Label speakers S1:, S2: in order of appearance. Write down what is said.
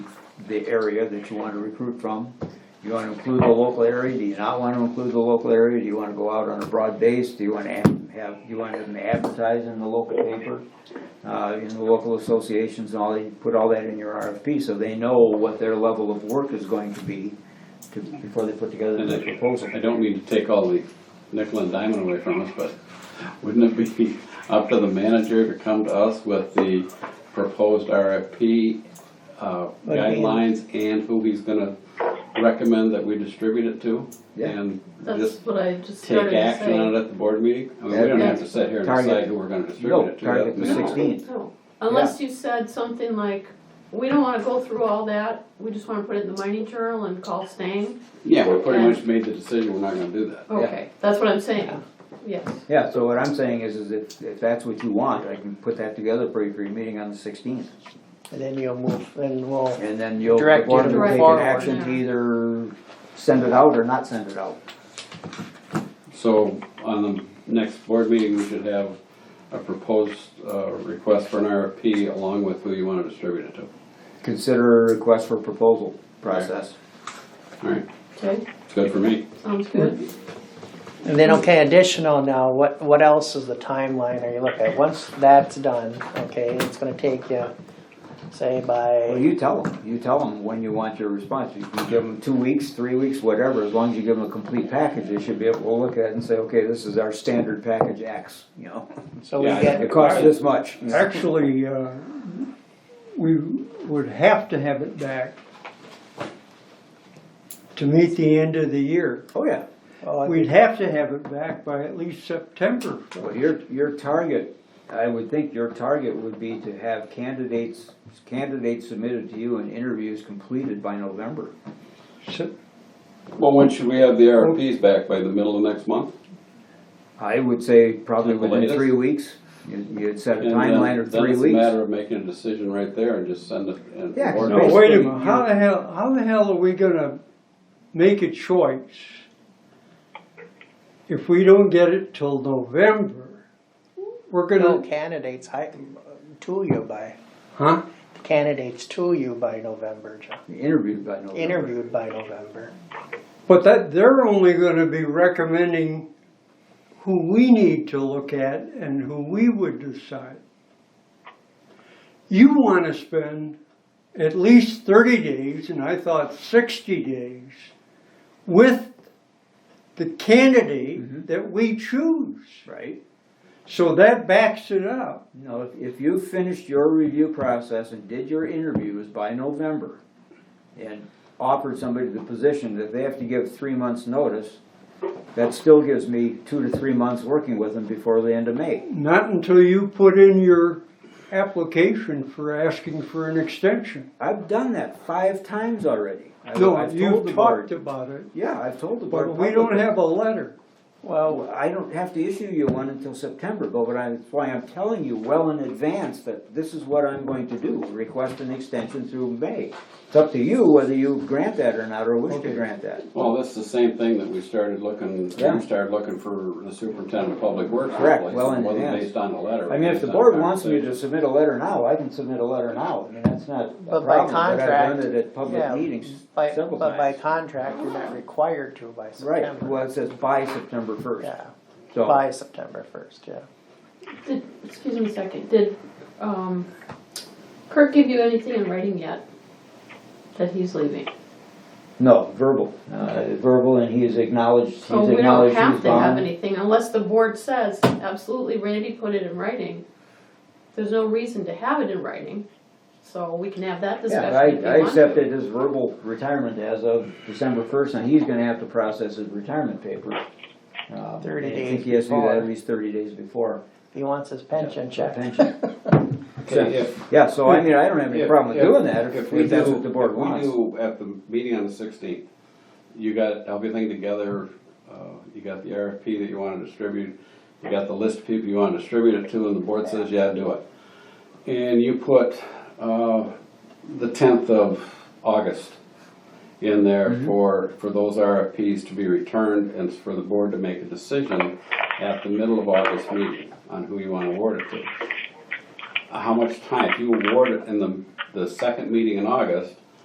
S1: the area that you want to recruit from. You want to include the local area, do you not want to include the local area, do you want to go out on a broad base, do you want to have- have, do you want them to advertise in the local paper? Uh, in the local associations and all, that? you put all that in your RFP, so they know what their level of work is going to be to, before they put together the proposal.
S2: I don't mean to take all the nickel and diamond away from us, but wouldn't it be up to the manager to come to us with the proposed RFP uh,
S1: But I mean-
S2: guidelines and who he's gonna recommend that we distribute it to?
S1: Yeah.
S2: And
S3: That's
S2: just
S3: what I just
S2: take
S3: started to
S2: action on
S3: say.
S2: it at the board meeting? I mean, we don't have to sit here and
S1: Target.
S2: decide who we're gonna distribute
S1: No,
S2: it to.
S1: target the
S2: That's-
S1: sixteen.
S3: No. Unless you said something like, we don't wanna go through all that, we just wanna put it in the mining journal and call Stang.
S2: Yeah, we pretty much made the decision, we're not gonna do that.
S3: Okay, that's what I'm saying, yes.
S1: Yeah, so what I'm saying is, is if, if that's what you want, I can put that together for you for your meeting on the sixteenth.
S4: And then you'll move, and we'll,
S1: And then you'll, the
S4: Direct you
S1: board
S4: to
S1: will
S3: move
S1: take an
S4: forward.
S1: action to either send it out or not send it out.
S2: So on the next board meeting, we should have a proposed uh, request for an RFP along with who you want to distribute it to.
S1: Consider request for proposal process.
S2: All right,
S3: Okay,
S2: it's good for me.
S3: sounds good.
S2: Mm-hmm.
S4: and then, okay, additional now, what, what else is the timeline are you looking at? Once that's done, okay, it's gonna take you, say
S1: Well,
S4: by,
S1: you tell them, you tell them when you want your response. You can give them two weeks, three weeks, whatever, as long as you give them a complete package, they should be able to look at it and say, okay, this is our standard package X, you know?
S4: so we
S2: Yeah, I-
S4: get,
S1: It costs this much.
S5: Actually, uh, we would have to have it back to meet the end of the year.
S1: Oh, yeah.
S4: oh,
S5: We'd have to have it back by at least September.
S1: Well, your, your target, I would think your target would be to have candidates, candidates submitted to you and interviews completed by November.
S5: So-
S2: Well, when should we have the RFPs back? By the middle of next month?
S1: I would say probably
S2: At the
S1: within
S2: latest.
S1: three weeks. You- You'd set a
S2: And then-
S1: timeline of
S2: Then
S1: three
S2: it's a
S1: weeks.
S2: matter of making a decision right there and just send it. and-
S1: Yeah, 'cause
S2: or
S5: No, wait a
S1: Basically,
S5: minute, how the hell, how the hell are we gonna make a choice if we don't get it till November? We're
S4: no
S5: gonna,
S4: candidates, I, to you by,
S5: huh?
S4: candidates to you by November, John.
S1: Interviewed by November.
S4: interviewed by November.
S5: But that, they're only gonna be recommending who we need to look at and who we would decide. You wanna spend at least thirty days, and I thought sixty days, with the
S1: Mhm.
S5: candidate that we choose.
S1: Right?
S5: So that backs it up.
S1: No, if- if you finished your review process and did your interviews by November and offered somebody the position that they have to give three months' notice, that still gives me two to three months working with them before the end of May.
S5: Not until you put in your application for asking for an extension.
S1: I've done that five times already. I-
S5: No,
S1: I've told the
S5: you've talked
S1: board.
S5: about it,
S1: Yeah, I've told the board.
S5: but we don't
S1: publicly.
S5: have a letter.
S4: Well,
S1: Well, I don't have to issue you one until September, but what I, that's why I'm telling you well in advance that this is what I'm going to do, request an extension through May. It's up to you whether you grant that or not, or wish to
S5: Okay.
S1: grant that.
S2: Well, that's the same thing that we started looking, we
S1: Yeah.
S2: started looking for the superintendent of public works.
S1: Correct,
S2: replacement.
S1: well in
S2: It Wasn't
S1: advance.
S2: based on a letter.
S1: I mean, if the
S2: it was based on
S1: board wants me to
S2: conversation.
S1: submit a letter now, I can submit a letter now, I mean, that's not a
S4: But
S1: problem,
S4: by
S1: but I've done
S4: contract,
S1: it at public
S4: yeah,
S1: meetings
S4: by,
S1: several
S4: but by
S1: times.
S4: contract, you're not required to by
S1: Right,
S4: September.
S1: well, it says by September first,
S4: Yeah,
S1: so.
S4: by September first, yeah.
S3: Did, excuse me a second, did, um, Kirk give you anything in writing yet? That he's leaving?
S1: No, verbal, uh, verbal, and he has acknowledged, he's
S3: So we don't
S1: acknowledged
S3: have
S1: he's
S3: to have
S1: bound.
S3: anything unless the board says, absolutely, Randy put it in writing. There's no reason to have it in writing, so we can have that
S1: Yeah,
S3: discussion if
S1: I, I
S3: you want to.
S1: accepted his verbal retirement as of December first, and he's gonna have to process his retirement paper. Uh,
S4: 30
S1: I
S4: days
S1: think he has to do that
S4: before.
S1: at least thirty days before.
S4: If he wants his pension check.
S1: Pension.
S2: Okay, if-
S1: Yeah, so I mean, I don't have any
S2: If-
S1: problem with
S2: if-
S1: doing that, if
S2: we
S1: if that's
S2: do-
S1: what the board
S2: if
S1: wants.
S2: We do at the meeting on the sixteenth, you got everything together, uh, you got the RFP that you wanna distribute, you got the list of people you wanna distribute it to, and the board says, yeah, do it. And you put, uh, the tenth of August in there
S1: Mm-hmm.
S2: for, for those RFPs to be returned and for the board to make a decision at the middle of August meeting on who you wanna award it to how much time, if you award it in the, the second meeting in August,